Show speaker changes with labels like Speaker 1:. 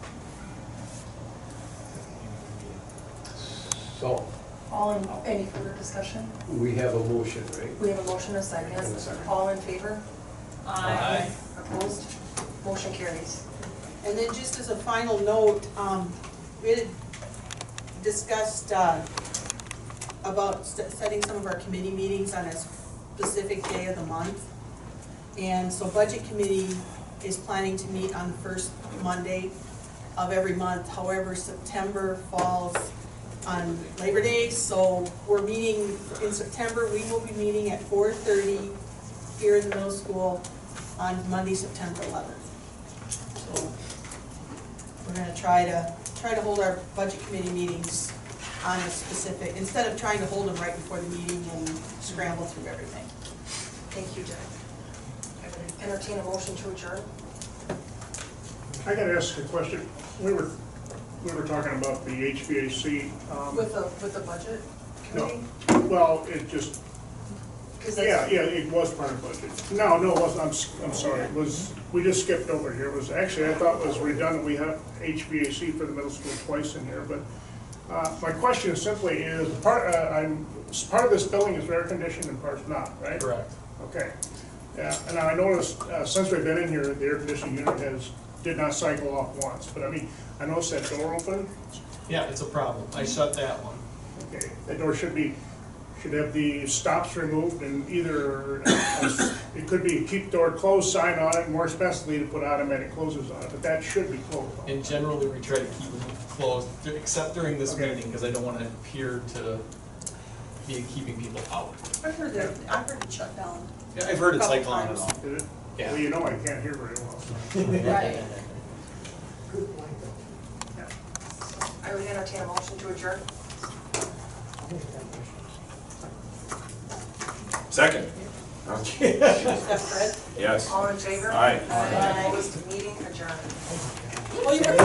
Speaker 1: So,
Speaker 2: All in, any further discussion?
Speaker 1: we have a motion, right?
Speaker 2: We have a motion, a second.
Speaker 1: And a second.
Speaker 2: All in favor?
Speaker 3: Aye.
Speaker 2: Opposed? Motion carries.
Speaker 4: And then just as a final note, um, we had discussed, uh, about s- setting some of our committee meetings on a specific day of the month. And so Budget Committee is planning to meet on the first Monday of every month. However, September falls on Labor Day, so we're meeting in September. We will be meeting at four thirty here in the middle school on Monday, September eleventh. So We're gonna try to, try to hold our budget committee meetings on a specific, instead of trying to hold them right before the meeting and scramble through everything.
Speaker 2: Thank you, Jack. I would Entertain a motion to adjourn?
Speaker 5: I gotta ask a question. We were, we were talking about the HVAC. um,
Speaker 2: With the, with the budget committee?
Speaker 5: No, well, it just,
Speaker 2: 'Cause
Speaker 5: yeah,
Speaker 2: that's-
Speaker 5: yeah, it was part of budget. No, no, it wasn't, I'm, s- I'm sorry, it was, we just skipped over here. It was, actually, I thought it was redundant. We have HVAC for the middle school twice in here, but uh, my question simply is, part, uh, I'm, s- part of this building is air conditioned and part's not, right?
Speaker 3: Correct.
Speaker 5: Okay. Yeah, and I noticed, uh, since we've been in here, the air conditioning unit has, did not cycle off once, but I mean, I noticed that door open.
Speaker 3: Yeah, it's a problem. I shut that one.
Speaker 5: Okay, that door should be, should have the stops removed and either, uh, it could be keep door closed sign on it, more especially to put automatic closes on it, but that should be closed.
Speaker 3: And generally, we try to keep them closed, except during this
Speaker 5: Okay.
Speaker 3: meeting, because I don't want to appear to be keeping people out.
Speaker 4: I've heard that, I've heard it shut down.
Speaker 3: Yeah, I've heard it's like
Speaker 4: Couple
Speaker 3: on and
Speaker 4: times.
Speaker 3: off.
Speaker 5: Did it?
Speaker 3: Yeah.
Speaker 5: Well, you know I can't hear very well.
Speaker 2: Right. I would entertain a motion to adjourn.
Speaker 6: Second. Okay.
Speaker 2: Steph Fred,
Speaker 6: Yes.
Speaker 2: all in favor?
Speaker 6: Aye.
Speaker 2: Aye. Opposed, meeting adjourned.
Speaker 4: Well, you were